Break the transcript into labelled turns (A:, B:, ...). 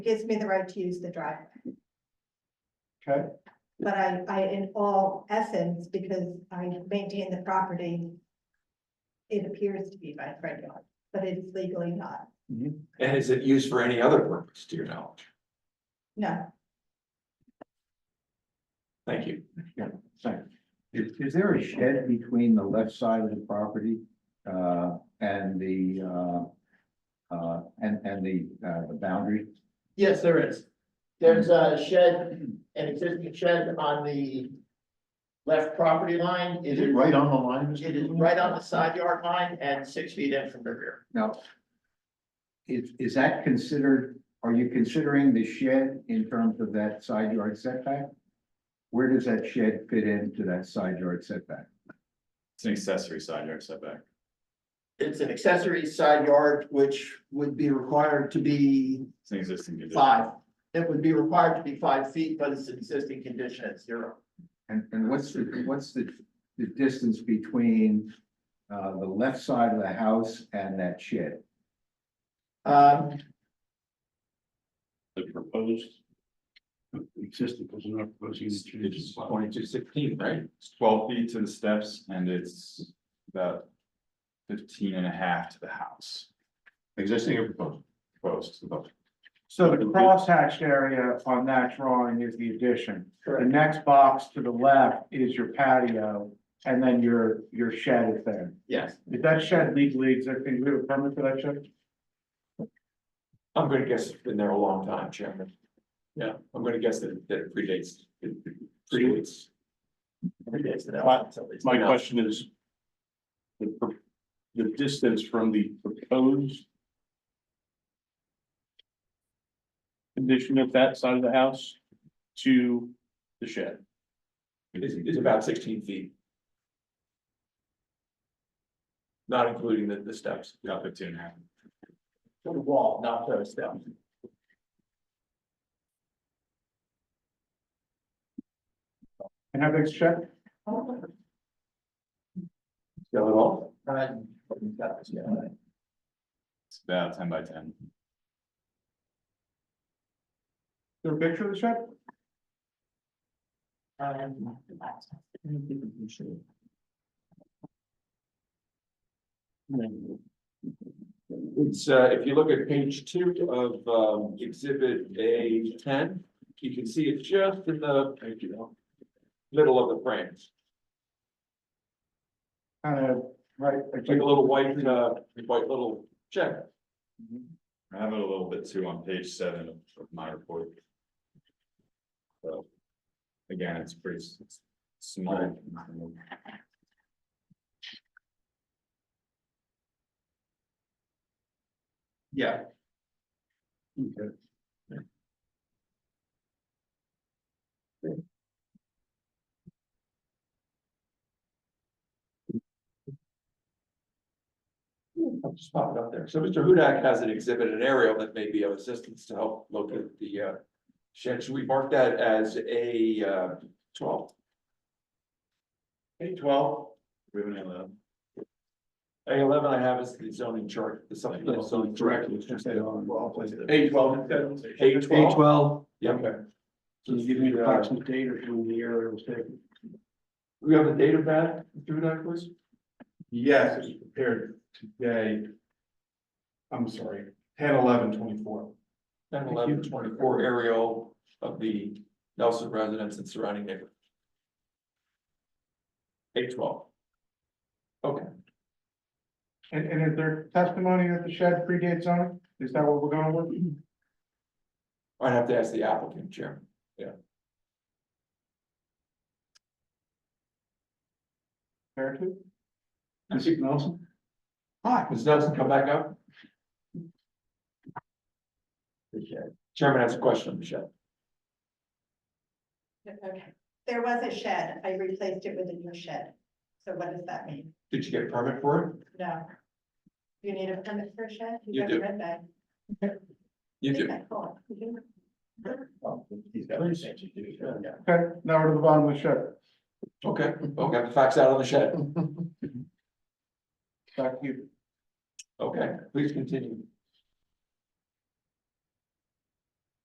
A: gives me the right to use the driveway.
B: Okay.
A: But I, I, in all essence, because I maintain the property, it appears to be my front yard, but it's legally not,
C: And is it used for any other purpose, to your knowledge?
A: no.
C: Thank you.
B: Sorry. Is, is there a shed between the left side of the property, uh, and the, uh, uh, and, and the, uh, the boundary?
D: Yes, there is. There's a shed, an existing shed on the left property line.
B: Is it right on the line? Mr.
D: It is
B: Cooley?
D: right on the side yard line and six feet in from the rear.
B: Now, is, is that considered, are you considering the shed in terms of that side yard setback? Where does that shed fit into that side yard setback?
E: It's an accessory side yard setback.
D: It's an accessory side yard, which would be required to be
E: It's an existing condition.
D: five. It would be required to be five feet, but it's an existing condition at zero.
B: And, and what's the, what's the, the distance between, uh, the left side of the house and that shed?
D: Um,
F: The proposed. Existing, because we're not proposing any
C: It's
F: changes.
C: twenty-two sixteen, right?
E: It's twelve feet to the steps and it's about 15 and a half to the house.
F: Existing or proposed?
E: Proposed, about
G: So the crosshatched area on that drawing is the addition. The
D: correct,
G: next box to the left is your patio, and then your, your shed is there.
D: yes.
G: Is that shed legally existing? Do we have a permit for that shed?
C: I'm gonna guess it's been there a long time, Chairman. Yeah, I'm gonna guess that that it predates, it predates.
D: Predates the development, at least.
F: My question is. The, pro- the distance from the proposed. Condition of that side of the house to the shed.
C: It's, it's about sixteen feet. Not including the, the steps.
E: about 15 and a half.
D: To the wall, not to the step.
G: And how big's the shed?
C: Got it all?
D: And- yeah.
E: It's about ten by ten.
G: Is there a picture of the shed?
D: Um,
C: It's, uh, if you look at page two of, um, exhibit A ten, you can see it just in the, you know, middle of the frames.
G: Kind of, right,
C: It's like a little white, uh, white little check.
E: I have it a little bit too on page seven of of my report. So. Again, it's pretty s- s- small.
C: Yeah. I'll just pop it up there. So Mr. Hudak has an exhibit, an aerial that may be of assistance to help locate the uh. Shed, should we mark that as A uh twelve? A twelve,
E: We have an eleven.
C: A eleven I have is the zoning chart, the supplemental zoning chart. A twelve, A twelve.
F: twelve.
C: Yeah, okay.
F: So you give me the approximate date or when the area was taken?
C: We have the date of that, through that, please?
H: Yes, it was prepared today. I'm sorry, ten, eleven, twenty-four.
C: Ten, eleven, twenty-four aerial of the Nelson residence and surrounding neighborhood. Eight twelve. Okay,
G: And, and is there testimony that the shed predates zoning? Is that what we're going with?
C: I'd have to ask the applicant, Chairman.
G: There too?
F: Mr. Nelson?
C: Hi, Ms. Nelson, come back up. The shed. Chairman has a question, Michelle.
A: Okay, there was a shed, I replaced it with a new shed, so what does that mean?
C: Did you get a permit for it?
A: No. You need a permit for a shed?
C: You do.
A: Read that.
C: You do.
A: Okay, cool. You do.
D: He's got the same to do, yeah.
G: Okay, now we're to the bottom of the shed.
C: Okay, well, got the facts out on the shed.
G: Back to you.
C: Okay, please continue.